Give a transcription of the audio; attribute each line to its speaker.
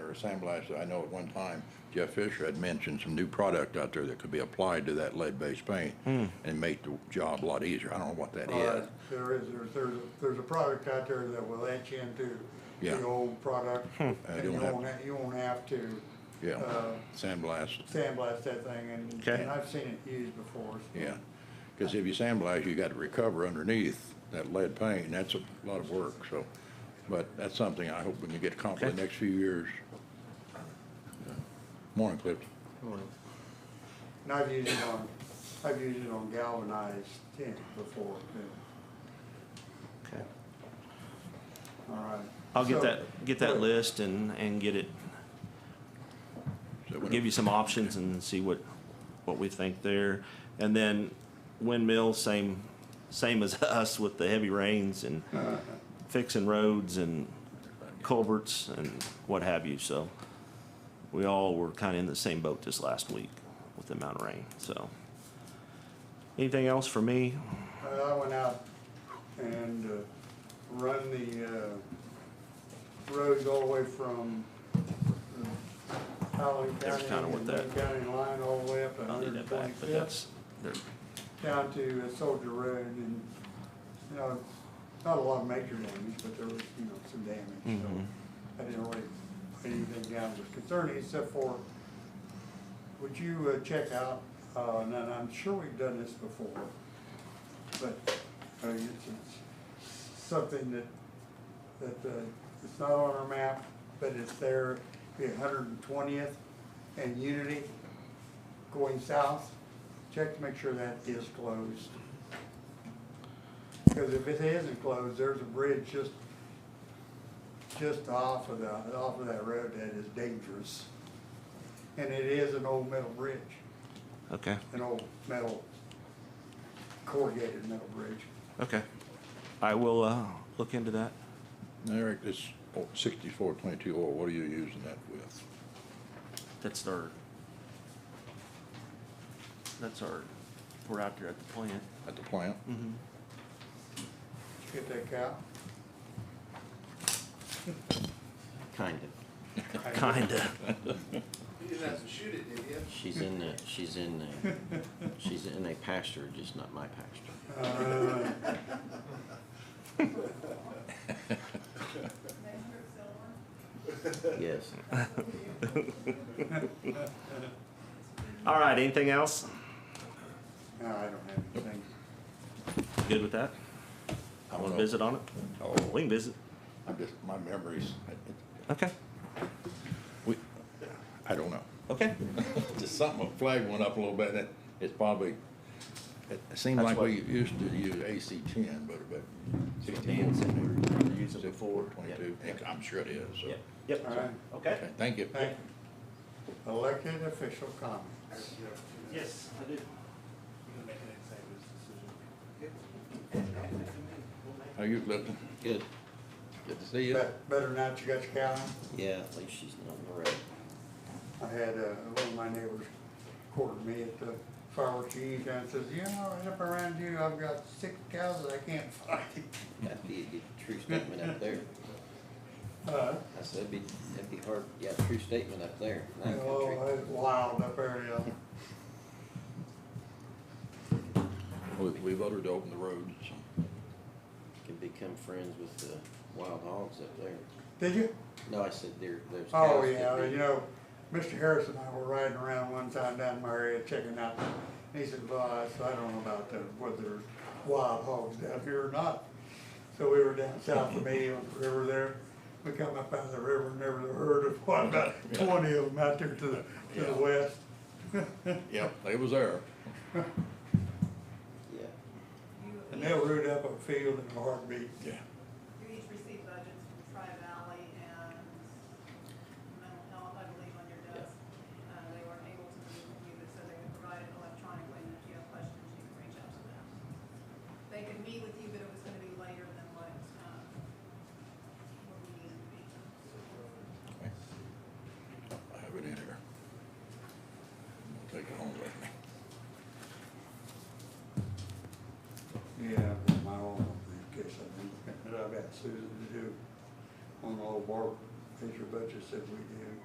Speaker 1: or sandblast, I know at one time Jeff Fisher had mentioned some new product out there that could be applied to that lead-based paint
Speaker 2: Hmm.
Speaker 1: and make the job a lot easier. I don't know what that
Speaker 3: Uh,
Speaker 1: is.
Speaker 3: There is, there's, there's, there's a product out there that will etch into
Speaker 1: Yeah.
Speaker 3: the old product.
Speaker 2: Hmm.
Speaker 3: And
Speaker 1: you
Speaker 3: you
Speaker 1: don't have-
Speaker 3: won't, ha- you won't have to,
Speaker 1: Yeah,
Speaker 3: uh,
Speaker 1: sandblast,
Speaker 3: sandblast that thing and,
Speaker 2: Okay.
Speaker 3: and I've seen it used before. so-
Speaker 1: yeah. Because if you sandblast, you got to recover underneath that lead paint, and that's a lot of work, so. But that's something I hope we can get accomplished in the next few years. Morning, Cliff.
Speaker 3: And I've used it on, I've used it on galvanized tin before, too.
Speaker 2: Okay.
Speaker 3: all right.
Speaker 2: I'll get
Speaker 3: So-
Speaker 2: that, get that list and, and get it,
Speaker 1: So when-
Speaker 2: give you some options and see what, what we think there. And then windmill, same, same as us with the heavy rains and fixing roads and culverts and what have you, so. We all were kinda in the same boat this last week with the amount of rain, so. Anything else for me?
Speaker 3: Uh, I went out and uh, run the uh, roads all the way from uh, Howland
Speaker 2: There's
Speaker 3: County
Speaker 2: kinda
Speaker 3: and
Speaker 2: what
Speaker 3: Boone
Speaker 2: that-
Speaker 3: County line all the way up to
Speaker 2: I'll leave that back, but
Speaker 3: 125th
Speaker 2: that's, there-
Speaker 3: down to uh, Soldier Road and, you know, not a lot of major damage, but there was, you know, some damage, so. I didn't really put anything down that was concerning except for, would you uh, check out, uh, and then I'm sure we've done this before, but, I mean, it's, it's something that, that, uh, it's not on our map, but it's there, the hundred and twentieth and Unity going south. Check to make sure that is closed. Because if it isn't closed, there's a bridge just, just off of the, off of that road that is dangerous. And it is an old metal bridge,
Speaker 2: okay,
Speaker 3: an old metal corrugated metal bridge.
Speaker 2: okay. I will, uh, look into that.
Speaker 1: Eric, this sixty-four twenty-two oil, what are you using that with?
Speaker 2: That's our, that's our, we're out there at the plant.
Speaker 1: At the plant?
Speaker 3: Get that cow?
Speaker 4: Kind of.
Speaker 2: Kinda.
Speaker 5: You didn't have to shoot it, did you?
Speaker 4: She's in the, she's in the, she's in a pasture, just not my pasture.
Speaker 3: Uh,
Speaker 4: Yes.
Speaker 2: All right, anything else?
Speaker 3: No, I don't have anything.
Speaker 2: Good with that?
Speaker 1: I don't
Speaker 2: Want
Speaker 1: know.
Speaker 2: to visit on it?
Speaker 1: Oh,
Speaker 2: We can visit.
Speaker 1: I'm just, my memories, I-
Speaker 2: Okay,
Speaker 1: we, I don't know.
Speaker 2: okay.
Speaker 1: Just something, a flag went up a little bit, and it's probably, it seemed
Speaker 2: That's
Speaker 1: like
Speaker 2: what-
Speaker 1: we used to use AC ten, but, but sixteen,
Speaker 4: Dan said we were gonna use it
Speaker 1: sixty-four,
Speaker 4: before.
Speaker 1: twenty-two,
Speaker 4: Yep.
Speaker 1: I'm sure it is, so.
Speaker 2: Yep,
Speaker 3: All
Speaker 2: Yep,
Speaker 3: right,
Speaker 2: okay.
Speaker 1: Okay, Thank you.
Speaker 3: thank you. Elected official comments.
Speaker 2: Yes, I do.
Speaker 1: How you, Clifton?
Speaker 4: Good.
Speaker 1: Good to see you.
Speaker 3: Bet- Better not you got your cow in?
Speaker 4: Yeah, at least she's not in the road.
Speaker 3: I had, uh, one of my neighbors quartered me at the fireworks unit and says, you know, right up around you, I've got six cows that I can't find.
Speaker 4: That'd be a good true statement up there.
Speaker 3: Uh,
Speaker 4: I said, that'd be, that'd be hard, yeah, true statement up there. in that country.
Speaker 3: oh, it's wild up there, yeah.
Speaker 1: We, we voted to open the roads, so.
Speaker 4: Can become friends with the wild hogs up there.
Speaker 3: Did you?
Speaker 4: No, I said there, there's cows.
Speaker 3: Oh,
Speaker 4: could
Speaker 3: yeah,
Speaker 4: be-
Speaker 3: you know, Mr. Harris and I were riding around one time down in my area checking out. And he said, well, I said, I don't know about the, whether there's wild hogs down here or not. So we were down south of me on the river there. We come up out of the river and there was a herd of, what, about twenty of them out there to the, to the
Speaker 1: Yeah.
Speaker 3: west.
Speaker 1: Yep, they was there.
Speaker 4: Yeah.
Speaker 3: And they'll root up a field in a heartbeat.
Speaker 1: Yeah.
Speaker 6: You each receive budgets from Tri-Valley and mental health, I believe, on your desk. Uh, they weren't able to meet with you, but said they would provide it electronically, and if you have questions, you can reach out to them. They could meet with you, but it was gonna be later than what, um, what we needed to be.
Speaker 1: I have it in here. I'll Take it home with me.
Speaker 3: Yeah, but my own briefcase, I think, that I've got Susan to do on the old bar, major budgets that we do.